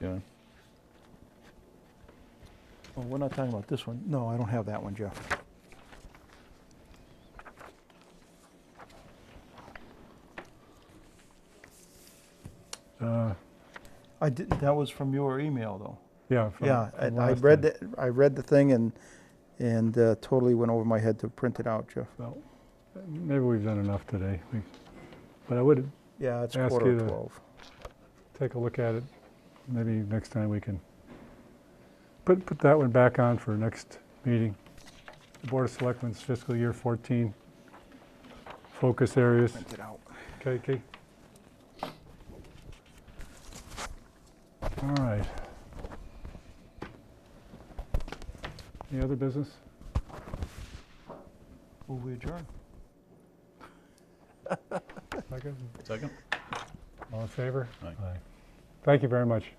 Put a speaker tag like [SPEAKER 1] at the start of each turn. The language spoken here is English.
[SPEAKER 1] Yeah.
[SPEAKER 2] Oh, we're not talking about this one. No, I don't have that one, Jeff.
[SPEAKER 1] Uh,
[SPEAKER 2] I didn't, that was from your email, though.
[SPEAKER 1] Yeah. from-
[SPEAKER 2] Yeah, I,
[SPEAKER 1] from
[SPEAKER 2] I
[SPEAKER 1] last
[SPEAKER 2] read
[SPEAKER 1] time.
[SPEAKER 2] the, I read the thing and, and uh, totally went over my head to print it out, Jeff.
[SPEAKER 1] Well, Maybe we've done enough today. We- But I would
[SPEAKER 2] Yeah, it's
[SPEAKER 1] Ask
[SPEAKER 2] quarter
[SPEAKER 1] you
[SPEAKER 2] to
[SPEAKER 1] to-
[SPEAKER 2] twelve.
[SPEAKER 1] take a look at it. Maybe next time we can put, put that one back on for next meeting. The Board of Selectmen's fiscal year 14 focus areas.
[SPEAKER 2] Print it out.
[SPEAKER 1] Okay, Kate? All right. Any other business?
[SPEAKER 2] Will we adjourn?
[SPEAKER 1] Second?
[SPEAKER 3] Second?
[SPEAKER 1] All in favor?
[SPEAKER 3] Aye.
[SPEAKER 1] Thank you very much.